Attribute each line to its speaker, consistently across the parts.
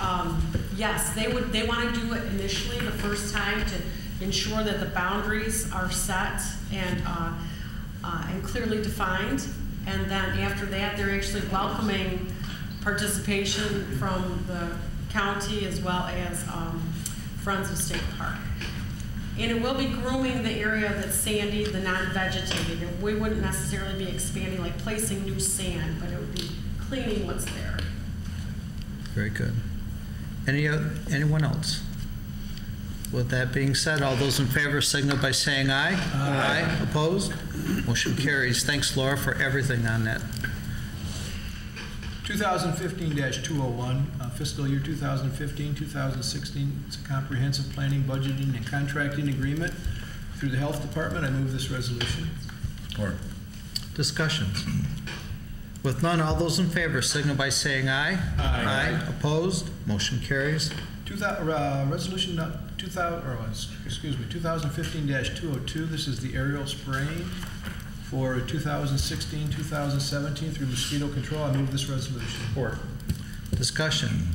Speaker 1: Um, Yes, they would, they want to do it initially the first time to ensure that the boundaries are set and, uh, uh, and clearly defined. And then after that, they're actually welcoming participation from the county as well as um, Friends of State Park. And it will be grooming the area that's sandy, the non-vegetated. And we wouldn't necessarily be expanding, like placing new sand, but it would be cleaning what's there.
Speaker 2: Very good. Any, o- anyone else? With that being said, all those in favor signal by saying aye. Aye. Opposed? Motion carries. Thanks, Laura, for everything on that.
Speaker 3: 2015-201, uh, fiscal year 2015, 2016, it's a comprehensive planning, budgeting, and contracting agreement through the Health Department. I move this resolution.
Speaker 4: Or
Speaker 2: Discussions? With none, all those in favor signal by saying aye.
Speaker 3: Aye.
Speaker 2: Opposed? Motion carries.
Speaker 3: 2000 uh, Resolution 2000, or, uh, excuse me, 2015-202, this is the aerial spraying for 2016, 2017 through mosquito control. I move this resolution.
Speaker 2: Discussion?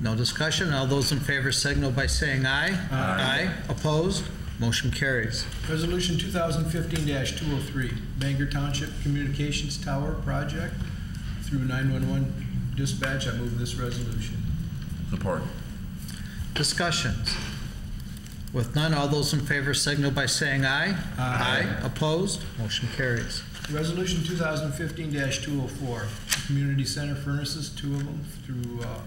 Speaker 2: No discussion? All those in favor signal by saying aye.
Speaker 3: Aye.
Speaker 2: Opposed? Motion carries.
Speaker 3: Resolution 2015-203, Bangor Township Communications Tower Project through 911 Dispatch. I move this resolution.
Speaker 4: Support.
Speaker 2: Discussions? With none, all those in favor signal by saying aye.
Speaker 3: Aye.
Speaker 2: Opposed? Motion carries.
Speaker 3: Resolution 2015-204, Community Center furnaces, two of them, through uh,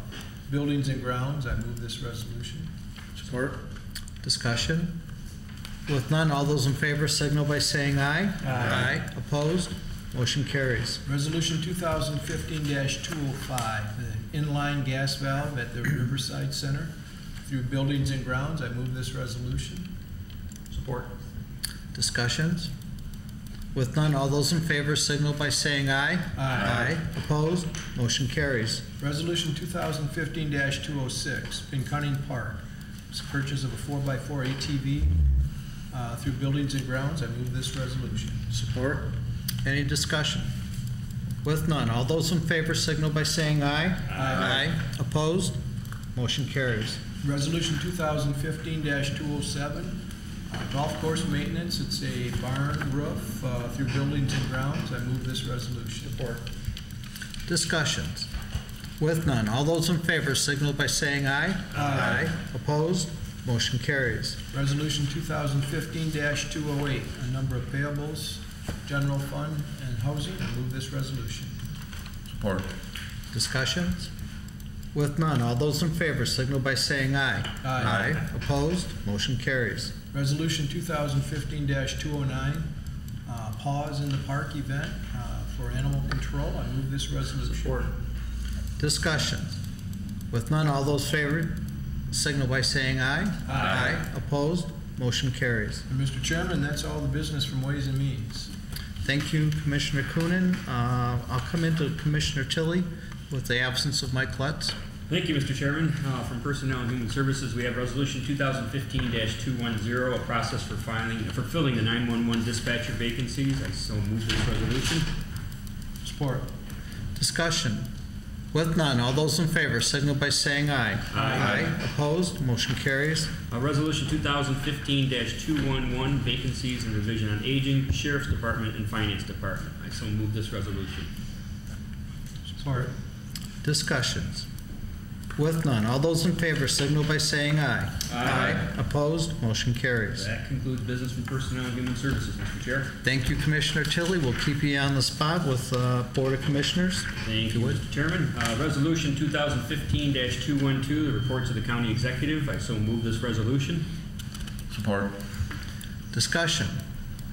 Speaker 3: Buildings and Grounds. I move this resolution.
Speaker 2: Support. Discussion? With none, all those in favor signal by saying aye. Aye. Opposed? Motion carries.
Speaker 3: Resolution 2015-205, the inline gas valve at the Riverside Center through Buildings and Grounds. I move this resolution. Support.
Speaker 2: Discussions? With none, all those in favor signal by saying aye.
Speaker 3: Aye.
Speaker 2: Opposed? Motion carries.
Speaker 3: Resolution 2015-206, Pinconning Park. It's a purchase of a 4x4 ATV uh, through Buildings and Grounds. I move this resolution.
Speaker 2: Support. Any discussion? With none, all those in favor signal by saying aye.
Speaker 3: Aye.
Speaker 2: Opposed? Motion carries.
Speaker 3: Resolution 2015-207, uh, golf course maintenance. It's a barn roof uh, through Buildings and Grounds. I move this resolution. Support.
Speaker 2: Discussions? With none, all those in favor signal by saying aye.
Speaker 3: Aye.
Speaker 2: Opposed? Motion carries.
Speaker 3: Resolution 2015-208, a number of payables, general fund, and housing. I move this resolution.
Speaker 4: Support.
Speaker 2: Discussions? With none, all those in favor signal by saying aye.
Speaker 3: Aye.
Speaker 2: Opposed? Motion carries.
Speaker 3: Resolution 2015-209, uh, pause in the park event uh, for animal control. I move this resolution. Support.
Speaker 2: Discussions? With none, all those favor signal by saying aye.
Speaker 3: Aye.
Speaker 2: Opposed? Motion carries.
Speaker 3: And Mr. Chairman, that's all the business from Ways and Means.
Speaker 2: Thank you, Commissioner Coonan. Uh, I'll come into Commissioner Tilly with the absence of Mike Lutz.
Speaker 5: Thank you, Mr. Chairman. Uh, From Personnel and Human Services, we have Resolution 2015-210, a process for filing, for filling the 911 dispatcher vacancies. I so move this resolution.
Speaker 3: Support.
Speaker 2: Discussion. With none, all those in favor signal by saying aye.
Speaker 5: Aye.
Speaker 2: Opposed? Motion carries.
Speaker 5: Uh, Resolution 2015-211, vacancies in the Division on Aging, Sheriff's Department, and Finance Department. I so move this resolution.
Speaker 3: Support.
Speaker 2: Discussions. With none, all those in favor signal by saying aye.
Speaker 5: Aye.
Speaker 2: Opposed? Motion carries.
Speaker 5: That concludes business from Personnel and Human Services, Mr. Chair.
Speaker 2: Thank you, Commissioner Tilly. We'll keep you on the spot with uh, Board of Commissioners.
Speaker 5: Thank you, Mr. Chairman. Uh, Resolution 2015-212, the reports of the county executive. I so move this resolution.
Speaker 4: Support.
Speaker 2: Discussion.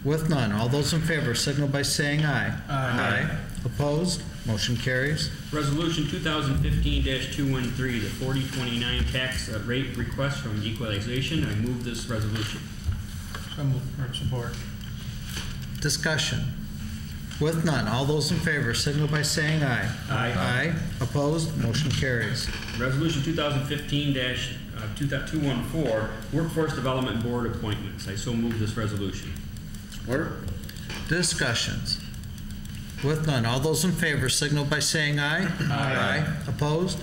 Speaker 2: With none, all those in favor signal by saying aye. Aye. Opposed? Motion carries.
Speaker 5: Resolution 2015-213, the 4029 tax uh, rate request from equalization. I move this resolution.
Speaker 3: So moved. Or Support.
Speaker 2: Discussion. With none, all those in favor signal by saying aye.
Speaker 5: Aye.
Speaker 2: Aye. Opposed? Motion carries.
Speaker 5: Resolution uh, 2015-214, Workforce Development Board appointments. I so move this resolution.
Speaker 2: Discussions. With none, all those in favor signal by saying aye. Aye. Opposed?